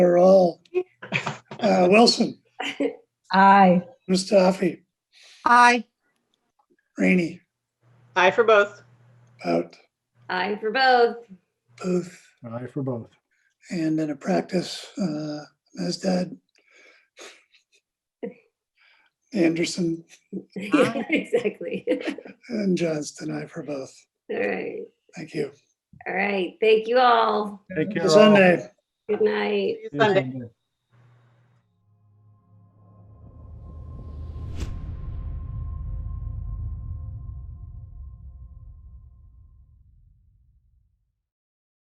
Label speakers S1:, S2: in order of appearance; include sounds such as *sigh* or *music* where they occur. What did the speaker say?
S1: Uh, Wilson,
S2: Aye.
S1: Mustafi,
S3: Aye.
S1: Rainey,
S4: Aye for both.
S1: Bout,
S5: Aye for both. *laughs*
S1: Booth,
S6: Aye for both.
S1: and in a practice, uh, Mazdad. Anderson
S5: Yeah, Exactly.
S1: and Johnston, I for both.
S5: All right.
S1: Thank you.
S5: All right. Thank you all.
S6: Take care.
S1: Sunday.
S5: Good night.
S4: See you
S6: all.
S4: Sunday.
S6: See you Sunday.